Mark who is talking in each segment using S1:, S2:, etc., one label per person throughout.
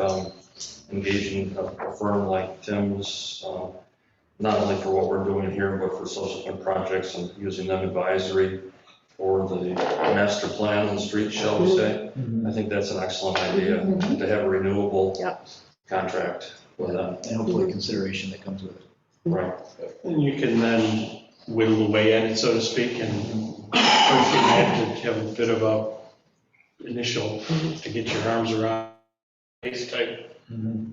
S1: um, engaging a a firm like Tim's, um, not only for what we're doing here, but for subsequent projects and using them advisory for the master plan on the street, shall we say. I think that's an excellent idea, to have a renewable
S2: Yep.
S1: contract with them,
S3: And hopefully consideration that comes with it.
S1: right?
S4: And you can then whittle away at it, so to speak, and first you have to have a bit of a initial to get your arms around base type
S3: Mm-hmm.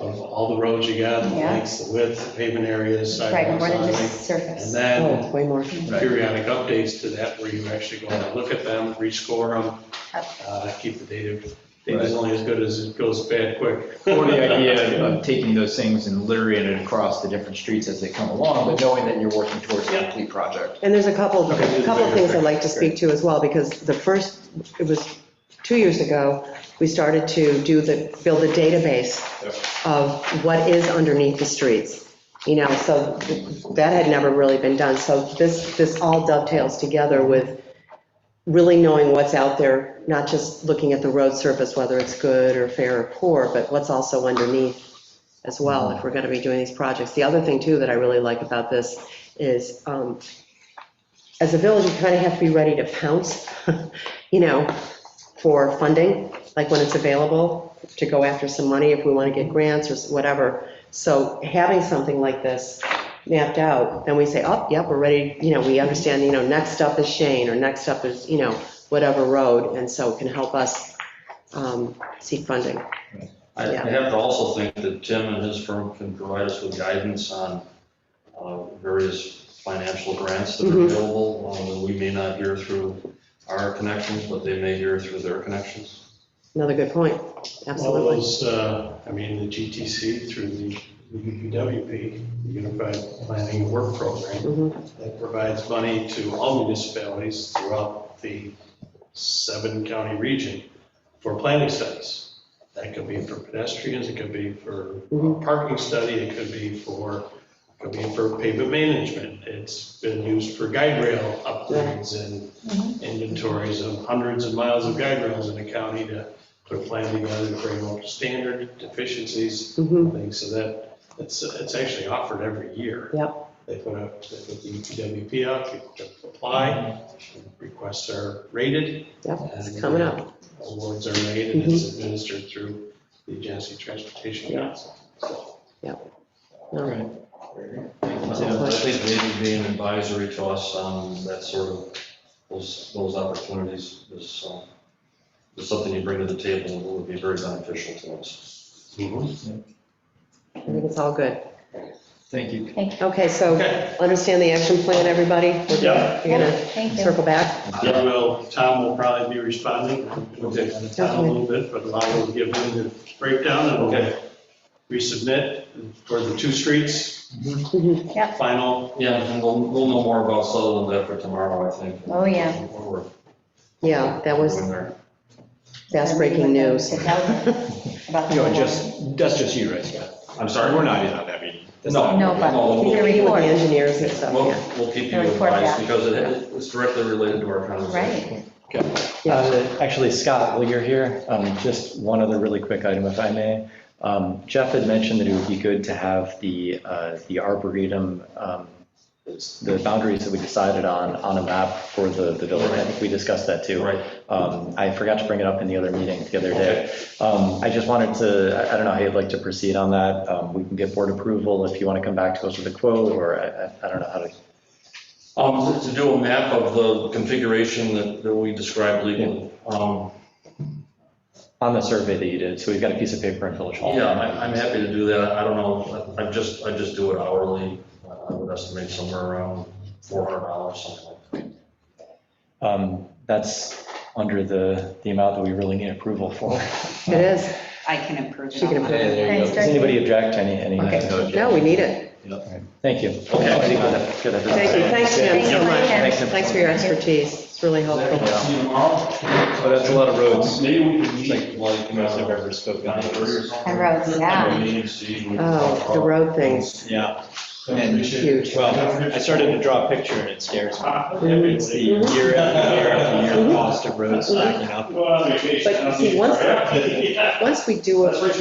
S4: of all the roads you got, the
S2: Yeah.
S4: lengths, the width, pavement areas,
S2: Right,
S4: sidewalks,
S2: more than
S4: highway.
S2: just Oh. surface.
S4: And then
S5: Oh, way more.
S4: periodic updates to that where you actually go and look at them, rescore them,
S2: Yep.
S4: uh, keep the data. Data's only as good as it goes bad quick.
S3: Or the idea of taking those things and littering it across the different streets as they come along, but knowing that you're working towards a
S4: Yeah.
S3: complete project.
S5: And there's a couple,
S4: Okay, do
S5: a
S4: the
S5: couple
S4: bigger
S5: things I'd
S4: thing.
S5: like to speak to as well, because the first, it was two years ago, we started to do the, build a database
S3: Yep.
S5: of what is underneath the streets, you know, so that had never really been done. So this, this all dovetails together with really knowing what's out there, not just looking at the road surface, whether it's good or fair or poor, but what's also underneath as well, if we're going to be doing these projects. The other thing too that I really like about this is um, as a village, you kind of have to be ready to pounce, you know, for funding, like when it's available, to go after some money if we want to get grants or s- whatever. So having something like this mapped out, then we say, oh, yep, we're ready, you know, we understand, you know, next up is Shane, or next up is, you know, whatever road, and so it can help us um, seek funding.
S1: I I have to also think that Tim and his firm can provide us with guidance on uh, various financial grants that are
S5: Mhm.
S1: available, um, that we may not hear through our connections, but they may hear through their connections.
S5: Another good point,
S4: All
S5: absolutely.
S4: those, uh, I mean, the GTC through the the UPWP, the Unified Planning and Work Program,
S5: Mhm,
S4: that provides money to all municipalities throughout the seven county region for planning studies. That could be for pedestrians, it could be for a
S5: mhm.
S4: parking study, it could be for, it could be for pavement management. It's been used for guide rail upgrades and
S2: Mm-hmm.
S4: inventories of hundreds of miles of guide rails in the county to put a plan together to bring up to standard deficiencies,
S5: mhm.
S4: things, so that, it's, it's actually offered every year.
S5: Yep.
S4: They put a, they put the E UPWP out, people can apply, requests are rated.
S5: Yep,
S4: and
S5: Coming up,
S4: Awards are made, and it's administered through the Genesee Transportation
S5: Mm-hmm. Yeah.
S4: Council. So
S5: all right.
S1: I think maybe being advisory to us on that sort of, those, those opportunities is, um, is something you bring to the table and would be very beneficial to us.
S5: I think it's all good.
S3: Thank you.
S5: Okay, so
S4: Okay.
S5: understand the action plan, everybody? We're
S4: Yeah.
S5: You're gonna
S2: Thank you.
S5: circle back?
S4: Yeah, well, Tom will probably be responding. We'll take on Tom a little bit, but I will give him the breakdown and we'll resubmit for the two streets,
S5: Mhm.
S4: final.
S1: Yeah, and we'll, we'll know more about Sutherland after tomorrow, I think.
S2: Oh, yeah.
S1: Or-
S5: Yeah, that was
S1: When they're-
S5: fast breaking news.
S2: To tell them about the
S3: You know,
S2: whole-
S3: just, that's just you, right? Yeah.
S1: I'm sorry.
S3: Sorry, we're not in on that meeting. That's
S1: No.
S3: not-
S2: No, but
S1: No,
S2: keep
S1: we'll-
S5: Meeting
S2: your
S5: with
S2: report.
S5: the engineers and stuff,
S1: We'll,
S5: yeah.
S1: we'll keep you
S2: The report back.
S1: advised because it, it's directly related to our conversation.
S2: Right.
S6: Uh, Actually, Scott, while you're here, um, just one other really quick item, if I may. Um, Jeff had mentioned that it would be good to have the, uh, the arboretum, um, the boundaries that we decided on, on a map for the, the village. I think we discussed that too.
S1: Right.
S6: Um, I forgot to bring it up in the other meeting the other
S1: Okay.
S6: day. Um, I just wanted to, I- I don't know how you'd like to proceed on that. Um, We can get board approval if you want to come back to us with a quote, or I, I- I don't know how to.
S1: Um, to do a map of the configuration that, that we described legally. Um,
S6: On the survey that you did, so we've got a piece of paper in Village Hall.
S1: yeah, I'm, I'm happy to do that. I don't know, I I just, I just do it hourly. I would estimate somewhere around four hundred dollars, something like that.
S6: Um, That's under the, the amount that we really need approval for.
S5: It is.
S7: I can improve it.
S5: She can
S7: on that.
S5: improve
S3: Yeah, there you
S2: Thanks,
S3: go.
S6: Does anybody object to any, any?
S5: Okay, no, we need it.
S6: Thank you.
S1: Okay.
S6: I think that- that- that-
S5: Thank you, thanks, Jim, so much.
S6: Thanks, Jim.
S5: Thanks for your expertise, it's really helpful.
S1: See you tomorrow?
S3: Oh, that's a lot of roads.
S1: Maybe we could
S3: Like,
S1: meet like, you
S3: I've
S1: know,
S3: ever spoken.
S1: nine thirty or
S3: to.
S1: something.
S2: And roads, yeah.
S1: Meeting, see. we can talk
S5: Oh, the
S1: about-
S5: road things,
S3: Yeah. And,
S5: huge.
S3: well, I started to draw a picture and it scares me. It's the
S4: Well,
S3: year after year after year cost of roads stacking up.
S4: vacation,
S5: But
S4: I don't
S5: see,
S4: need
S5: once-
S4: to-
S5: Once we do a
S4: That's what you